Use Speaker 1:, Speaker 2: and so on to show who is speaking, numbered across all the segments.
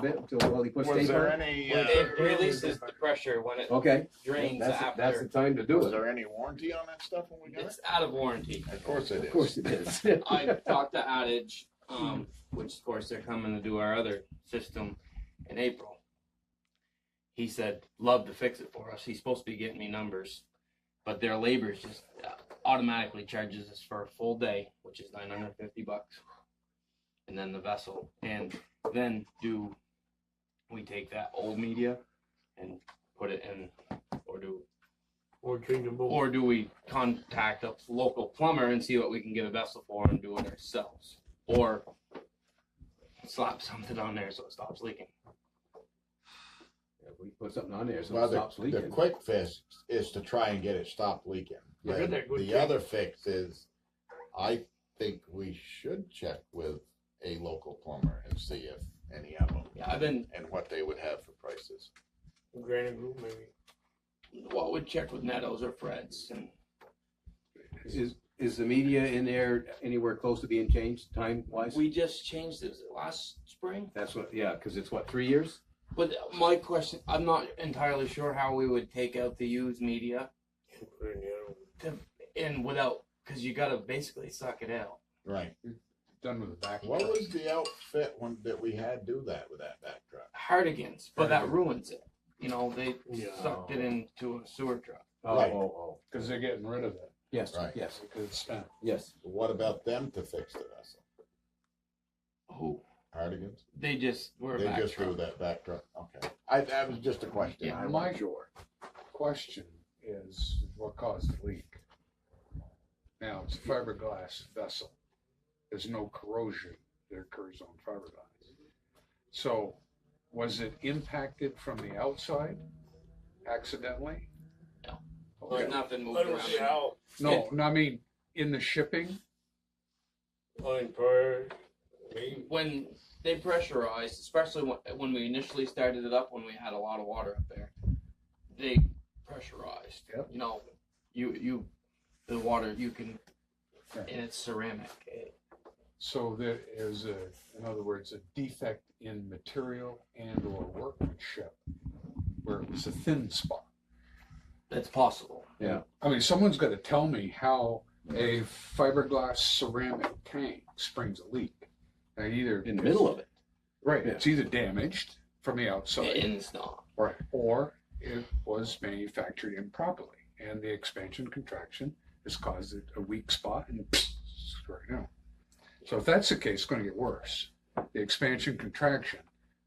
Speaker 1: bit until, well, he puts
Speaker 2: Was
Speaker 1: tape
Speaker 2: there
Speaker 1: on it?
Speaker 2: any, uh,
Speaker 3: It releases the pressure when it
Speaker 1: Okay,
Speaker 3: drains
Speaker 4: That's, the- that's the
Speaker 3: after.
Speaker 4: time to do
Speaker 2: was
Speaker 4: it.
Speaker 2: there any warranty on that stuff when we got it?
Speaker 3: It's out of warranty.
Speaker 2: Of course it
Speaker 1: of
Speaker 2: is.
Speaker 1: course it is.
Speaker 3: I talked to Adage, um, which of course they're coming to do our other system in April. He said, love to fix it for us. He's supposed to be getting me numbers, but their labor is just uh, automatically charges us for a full day, which is nine hundred fifty bucks. And then the vessel, and then do we take that old media and put it in, or do
Speaker 5: Or change them both.
Speaker 3: or do we contact a local plumber and see what we can get a vessel for and do it ourselves? Or slap something on there so it stops leaking.
Speaker 1: If We put something on there so
Speaker 2: Well,
Speaker 1: it stops
Speaker 2: The
Speaker 1: leaking.
Speaker 2: quick fix is to try and get it stopped leaking.
Speaker 5: Yeah,
Speaker 2: And
Speaker 5: they're good
Speaker 2: The
Speaker 5: fix.
Speaker 2: other fix is, I think we should check with a local plumber and see if any of them.
Speaker 3: Yeah, I've been,
Speaker 2: And what they would have for prices.
Speaker 5: Granite group maybe.
Speaker 3: what would check with Netto's or Fred's and
Speaker 1: Is, is the media in there anywhere close to being changed time wise?
Speaker 3: we just changed this last spring.
Speaker 1: That's what, yeah, cause it's what, three years?
Speaker 3: But my question, I'm not entirely sure how we would take out the used media
Speaker 5: Put in the other one.
Speaker 3: and without, cause you gotta basically suck it out.
Speaker 2: Right.
Speaker 6: Done with the back.
Speaker 2: What was the outfit one that we had do that with that back truck?
Speaker 3: Hardigans, but that ruins it. You know, they
Speaker 5: Yeah.
Speaker 3: sucked it into a sewer truck.
Speaker 1: Oh,
Speaker 2: Right.
Speaker 1: oh, oh,
Speaker 6: Cause they're getting rid of it,
Speaker 1: yes,
Speaker 2: Right.
Speaker 1: yes,
Speaker 6: because it's spent.
Speaker 1: yes.
Speaker 2: What about them to fix the vessel?
Speaker 3: Oh.
Speaker 2: Hardigan's?
Speaker 3: They just were
Speaker 2: They
Speaker 3: back
Speaker 2: just do
Speaker 3: truck.
Speaker 2: that back truck, okay. I, that was just a question.
Speaker 6: Yeah,
Speaker 2: I
Speaker 6: my-
Speaker 2: wasn't sure.
Speaker 6: Question is, what caused the leak? Now, it's a fiberglass vessel. There's no corrosion that occurs on fiberglass. So was it impacted from the outside accidentally?
Speaker 3: No. Like
Speaker 6: Okay.
Speaker 3: nothing moved
Speaker 5: I don't see
Speaker 3: around.
Speaker 5: how,
Speaker 6: No, no, I mean, in the shipping?
Speaker 5: on prior, maybe,
Speaker 3: When they pressurized, especially when, when we initially started it up, when we had a lot of water up there, they pressurized.
Speaker 6: Yep.
Speaker 3: You know, you you the water you can,
Speaker 6: Right.
Speaker 3: and it's ceramic. It-
Speaker 6: So there is a, in other words, a defect in material and or workmanship where it was a thin spot.
Speaker 3: It's possible.
Speaker 6: I mean, someone's got to tell me how a fiberglass ceramic tank springs a leak. Now, either
Speaker 1: In the middle of it.
Speaker 6: right, it's either damaged from the outside,
Speaker 3: And it's not.
Speaker 6: right, or it was manufactured improperly, and the expansion contraction has caused it a weak spot and right now. So if that's the case, it's going to get worse. The expansion contraction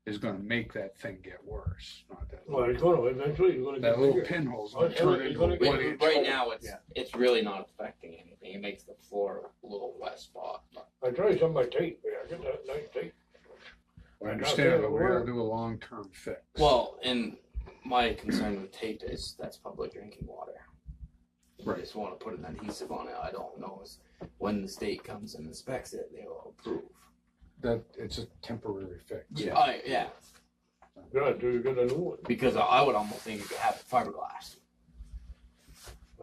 Speaker 6: is going to make that thing get worse. Not that
Speaker 5: well, it's gonna, eventually it's gonna get
Speaker 6: that little
Speaker 5: bigger.
Speaker 6: pinhole's
Speaker 5: Oh,
Speaker 6: going to turn
Speaker 5: it's
Speaker 6: into
Speaker 5: gonna
Speaker 6: a
Speaker 5: get-
Speaker 6: one
Speaker 3: Right,
Speaker 6: inch.
Speaker 3: right now, it's
Speaker 6: Yeah.
Speaker 3: it's really not affecting anything. It makes the floor a little wet spot.
Speaker 5: I tried some of my tape, but I got that nice tape.
Speaker 6: I understand, but we got to do a long term fix.
Speaker 3: Well, and my concern with tape is that's public drinking water. I
Speaker 6: Right.
Speaker 3: just want to put an adhesive on it. I don't know is when the state comes and inspects it, they will approve.
Speaker 6: that it's a temporary fix.
Speaker 1: Yeah.
Speaker 3: I, yeah.
Speaker 5: Yeah, do you get a new one?
Speaker 3: Because I, I would almost think you could have it fiberglass.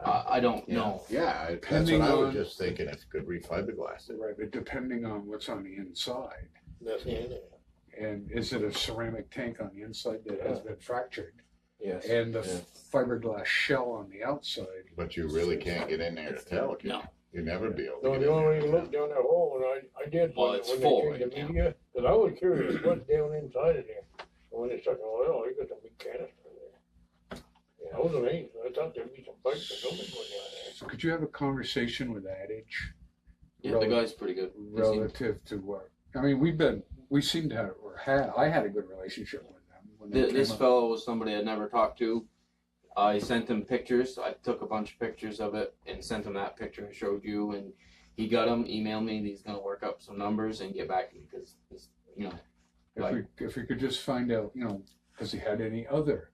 Speaker 3: I, I don't know.
Speaker 2: Yeah, I- that's
Speaker 6: Depending
Speaker 2: what I was
Speaker 6: on-
Speaker 2: just thinking, if could we fiberglass it?
Speaker 6: Right, but depending on what's on the inside,
Speaker 5: That's it.
Speaker 6: and is it a ceramic tank on the inside that has been fractured,
Speaker 1: Yes.
Speaker 6: and the
Speaker 2: Yeah.
Speaker 6: fiberglass shell on the outside?
Speaker 2: But you really can't get in there to tell, can you?
Speaker 3: No.
Speaker 2: You'd never be able to
Speaker 5: No,
Speaker 2: get
Speaker 5: the only way you
Speaker 2: in there.
Speaker 5: look down that hole, and I, I did
Speaker 3: Well,
Speaker 5: when,
Speaker 3: it's
Speaker 5: when
Speaker 3: full
Speaker 5: they changed
Speaker 3: right
Speaker 5: the
Speaker 3: now.
Speaker 5: media, cause I was curious what's down inside of there. And When they stuck it oil, they got some big canister in there. Yeah, I was amazed, I thought there'd be some pipes or something going down there.
Speaker 6: So could you have a conversation with Adage
Speaker 3: Yeah, the guy's pretty good. He seemed-
Speaker 6: relative to what? I mean, we've been we seem to have or had I had a good relationship with them. When they
Speaker 3: Th- This
Speaker 6: came up.
Speaker 3: fellow was somebody I'd never talked to. I sent him pictures. I took a bunch of pictures of it and sent him that picture I showed you. And he got them, emailed me, and he's going to work up some numbers and get back to me because, you know,
Speaker 6: if we if we could just find out, you know, has he had any other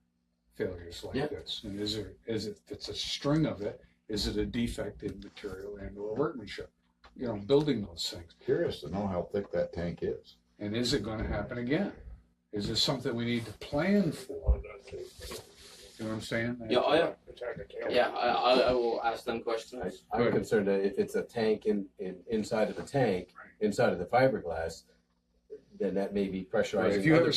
Speaker 6: failures like
Speaker 3: Yeah.
Speaker 6: this? And is there is it if it's a string of it, is it a defect in material and or workmanship? You know, building those things.
Speaker 2: Curious to know how thick that tank is.
Speaker 6: And is it gonna happen again? Is this something we need to plan for?
Speaker 5: Well, that's it.
Speaker 6: You know what I'm saying?
Speaker 3: Yeah, I-
Speaker 5: It's hard to tell.
Speaker 3: yeah, I, I, I will ask them
Speaker 4: I-
Speaker 3: questions.
Speaker 4: I'm concerned that if it's a tank in, in, inside of the tank, inside of the fiberglass, then that may be
Speaker 6: Right,
Speaker 4: pressurizing
Speaker 6: If you
Speaker 4: other
Speaker 6: have a